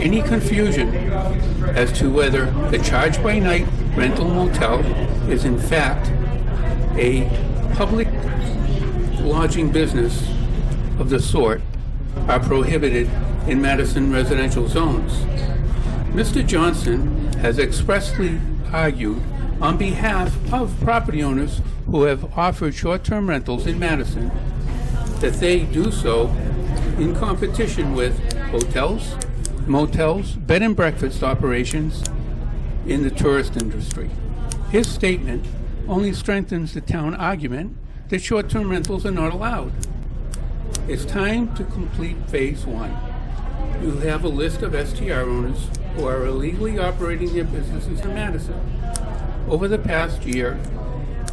any confusion as to whether the charge by night rental motel is in fact a public lodging business of the sort are prohibited in Madison residential zones. Mr. Johnson has expressly argued on behalf of property owners who have offered short-term rentals in Madison that they do so in competition with hotels, motels, bed and breakfast operations in the tourist industry. His statement only strengthens the town argument that short term rentals are not allowed. It's time to complete phase one. You have a list of STR owners who are illegally operating their businesses in Madison. Over the past year,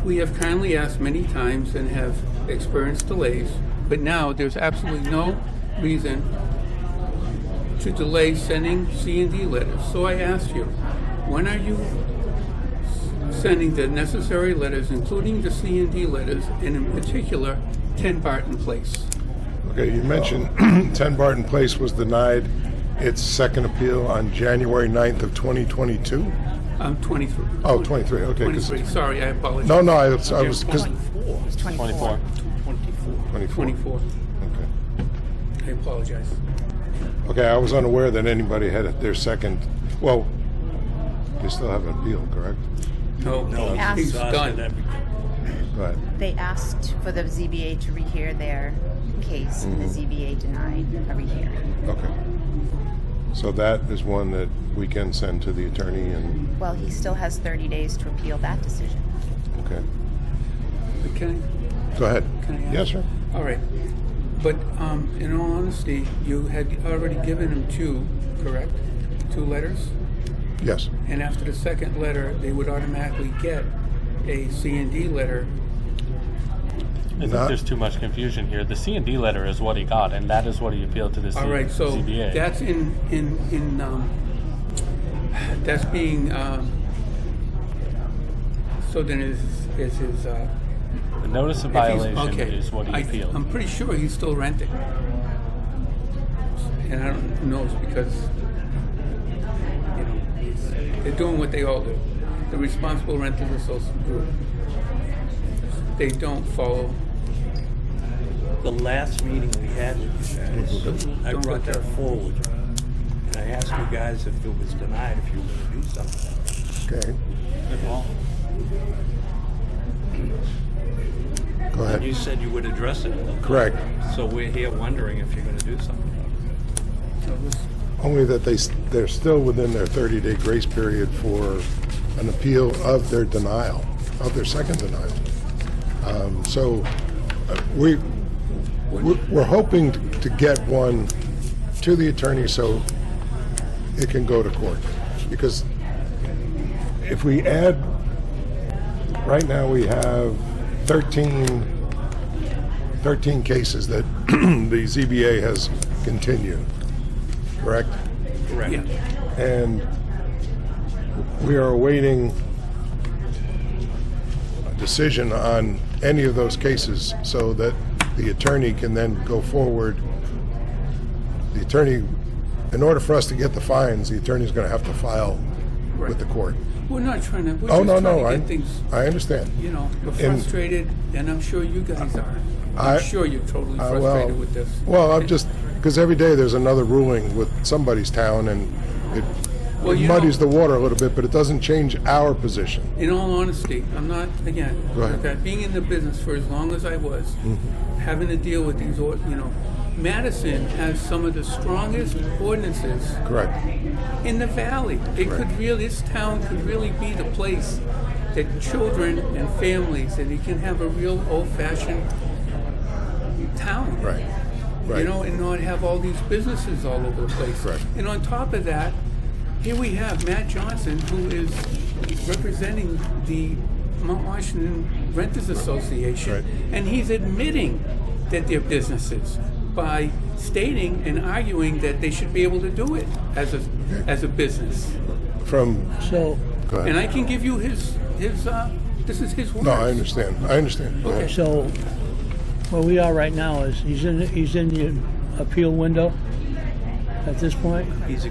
we have kindly asked many times and have experienced delays, but now there's absolutely no reason to delay sending C and D letters. So I asked you, when are you s- sending the necessary letters, including the C and D letters, and in particular, 10 Barton Place? Okay, you mentioned 10 Barton Place was denied its second appeal on January 9th of 2022? I'm 23. Oh, 23, okay. 'cause- 23, sorry, I apologize. No, no, I was, I was, 'cause- 24. 24. 24, Okay. I apologize. Okay, I was unaware that anybody had their second, well, they still have an appeal, correct? No, They asked- he's done. Go ahead. They asked for the ZBA to rehear their case, and the ZBA denied a rehearing. Okay. So that is one that we can send to the attorney and, Well, he still has 30 days to appeal that decision. okay. But Can I? Go ahead. Can I ask- Yes, sir. All right. But um, in all honesty, you had already given him two, correct? Two letters? Yes. And after the second letter, they would automatically get a C and D letter. I think Not- there's too much confusion here. The C and D letter is what he got, and that is what he appealed to the C- All right, so ZBA. that's in, in, in, um, that's being, um, so then is, is his, uh. the notice of if he's- violation okay, is what he I- appealed. I'm pretty sure he's still renting. And I don't know, it's because, you know, it's- they're doing what they all do. The Responsible Renters Association Group. They don't follow The last meeting we had with you guys, I Don't brought put that that- forward. And I asked you guys if it was denied, if you were gonna do something. Okay, go And you ahead. said you would address it. Uh, Correct. So we're here wondering if you're gonna do something. about So this- Only that they, s- they're still within their 30-day grace period for an appeal of their denial, of their second denial. Um, So uh, we, we're we're hoping to get one to the attorney so it can go to court. Because if we add, right now we have 13 13 cases that the ZBA has continued, correct? it. Correct. Yeah. And we are awaiting a decision on any of those cases so that the attorney can then go forward. The attorney, in order for us to get the fines, the attorney's going to have to file with the court. We're not trying to, we're Oh, just no, trying no, to I, get things, I understand. you know, we're And- frustrated, and I'm sure you guys are. I- I'm sure you're totally Uh, well, frustrated with this. Well, I'm just, because every day there's another ruling with somebody's town and it Well, it you muddies the know- water a little bit, but it doesn't change our position. In all honesty, I'm not, again, Go ahead. okay, being in the business for as long as I was, having to deal with these, or- you know, Madison has some of the strongest ordinances Correct. in the valley. It could really, this town could really be the place that children and families, and you can have a real old-fashioned town. Right. Right. you know, and not have all these businesses all over the place. Correct. And on top of that, here we have Matt Johnson, who is representing the Mount Washington Renters Association, Right. and he's admitting that they're businesses by stating and arguing that they should be able to do it as a as a business. From, So, go And ahead. I can give you his his. Uh, this is his words. No, I understand. I understand. Go ahead. so where we are right now is he's in he's in the appeal window at this point. He's